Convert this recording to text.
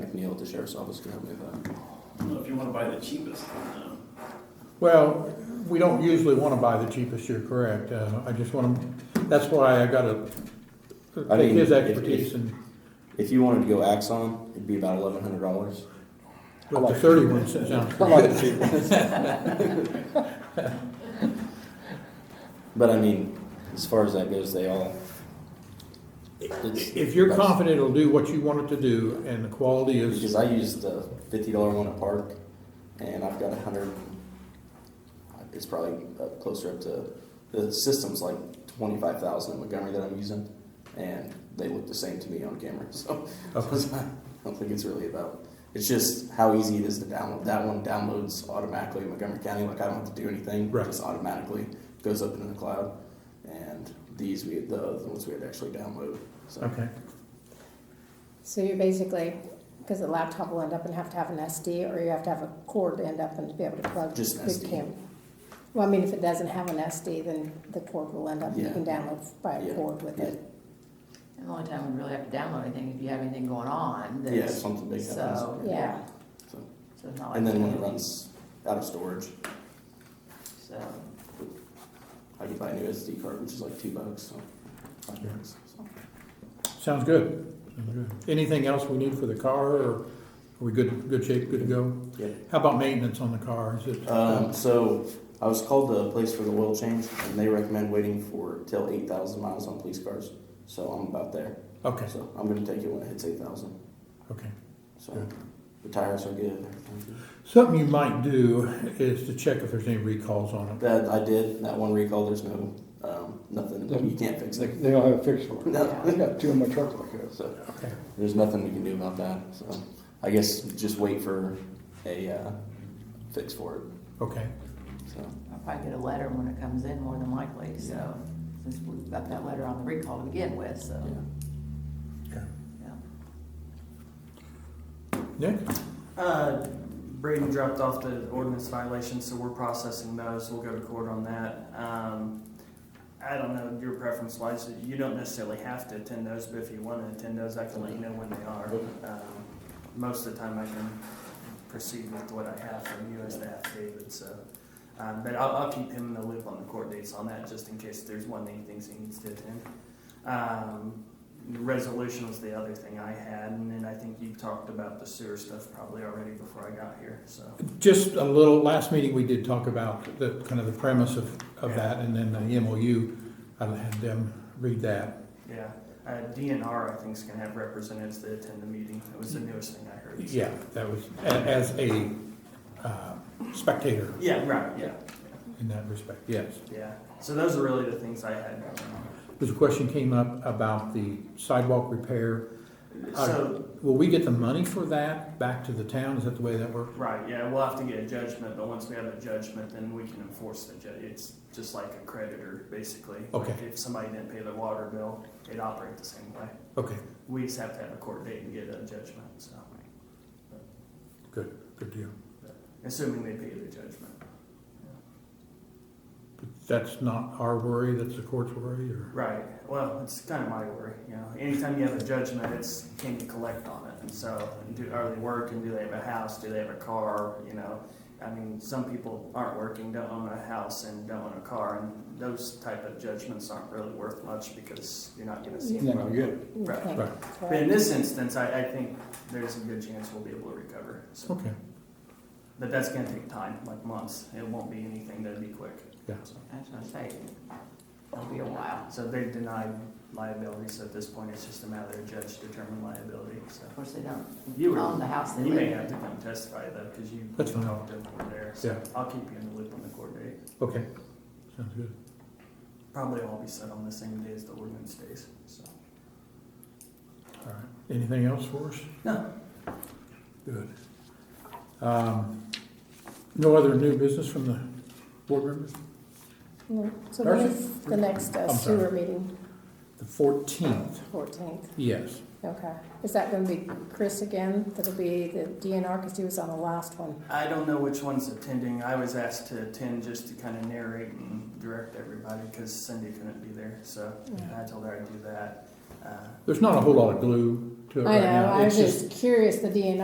the sheriff's office can help me with that. Well, If you wanna buy the cheapest, um, Well, we don't usually want to buy the cheapest, you're correct. Uh, I just want to, that's why I got to I take mean, his if- expertise if- and If you wanted to go Axon, it'd be about eleven hundred dollars. with the thirty-one sounds. I like the cheap ones. But I mean, as far as that goes, they all, It's- If you're confident it'll do what you want it to do and the quality because is, I used the fifty dollar one at Park, and I've got a hundred. It's probably up closer up to, the system's like twenty-five thousand in Montgomery that I'm using, and they look the same to me on camera, so. I Okay. don't think it's really about, it's just how easy it is to download, that one downloads automatically in Montgomery County, like I don't have to do anything. It Right. Just automatically goes up into the cloud, and these, we the other ones we had to actually download, so. okay. So you're basically, because the laptop will end up and have to have an SD, or you have to have a cord to end up and be able to plug. Just an the SD. cam- Well, I mean, if it doesn't have an SD, then the cord will end up, you Yeah. can download by a Yeah. cord with it. And the only time we really have to download anything, if you have anything going on, Yeah, that's, something big so, happens. yeah. Yeah, So, So it's not like And then when it that. runs out of storage, So, I can buy a new SD card, which is like two bucks, so. five Yeah. bucks, so. Sounds good. Sounds good. Anything else we need for the car or are we good, good shape, good to go? Yep. How about maintenance on the car? Is it? Um, so I was called to a place for the oil change, and they recommend waiting for till eight thousand miles on police cars. So I'm about there. Okay, So I'm gonna take it when it hits eight thousand. okay. So Good. the tires are good. and everything's good. Something you might do is to check if there's any recalls on it. That I did that one recall. There's no um, nothing. You can't fix They, it. they don't have a fix for it. I No. got two in my truck like this. So Okay. there's nothing we can do about that. So I guess just wait for a uh, fix for it. Okay, So I'll probably get a letter when it comes in, more than likely, so, since we got that letter on the recall to begin with, so, yeah. okay. yeah. Nick? Uh, Braden dropped off the ordinance violations, so we're processing those. We'll go to court on that. Um, I don't know your preference wise. You don't necessarily have to attend those, but if you want to attend those, I can let you know when they are. Um, most of the time, I can proceed with what I have from you as the affidavit. So, um, but I'll, I'll keep him in the loop on the court dates on that, just in case there's one that he thinks he needs to attend. Um, the Resolution was the other thing I had, and then I think you talked about the sewer stuff probably already before I got here, so. Just a little, last meeting, we did talk about the, kind of the premise of, of that, and then the MOU, I had them read that. Yeah, Uh, DNR, I think, is gonna have representatives that attend the meeting, that was the newest thing I heard. so. Yeah, that was, a- as a uh, spectator Yeah, right, yeah, in that respect, yes. yeah, so those are really the things I had. There's a question came up about the sidewalk repair. Uh, So, Will we get the money for that back to the town? Is that the way that works? right, yeah, we'll have to get a judgment, but once we have a judgment, then we can enforce the ju, it's just like a creditor, basically. Okay. If somebody didn't pay their water bill, it'd operate the same way, Okay, we just have to have a court date and get a judgment, so. good, good deal. Assuming they pay the judgment. But That's not our worry, that's the court's worry, or? Right. Well, it's kind of my worry. You know, anytime you have a judgment, it's can you collect on it? And so, do are they working? Do they have a house? Do they have a car? You know, I mean, some people aren't working, don't own a house, and don't own a car, and those type of judgments aren't really worth much because you're not going to see. You're not gonna get it. you Right. can't Right. correct. But in this instance, I, I think there's a good chance we'll be able to recover. So, Okay, but that's going to take time, like months. It won't be anything that'd be quick. yeah, That's what I say, it'll be a while. So they've denied liability. So at this point, it's just a matter of judge determine liability. So. Of course, they don't You were- own the house they You live may in. have to come testify though, because you That's fine. talked to them over there. So yeah, I'll keep you in the loop on the court date. okay, sounds good. Probably all be set on the same day as the ordinance days, so. All right, anything else for us? No. Good. Um, No other new business from the board members? No. Mm-hmm. So when Darcy? is the next uh, I'm sorry. sewer meeting? The fourteenth, Fourteenth, yes. okay. Is that gonna be Chris again? That'll be the DNR, because he was on the last one. I don't know which one's attending. I was asked to attend just to kind of narrate and direct everybody because Cindy couldn't be there, so Yeah. I told her I'd do that. Uh, There's not a whole lot of glue to it I right know, now. I It's was just curious, the DNR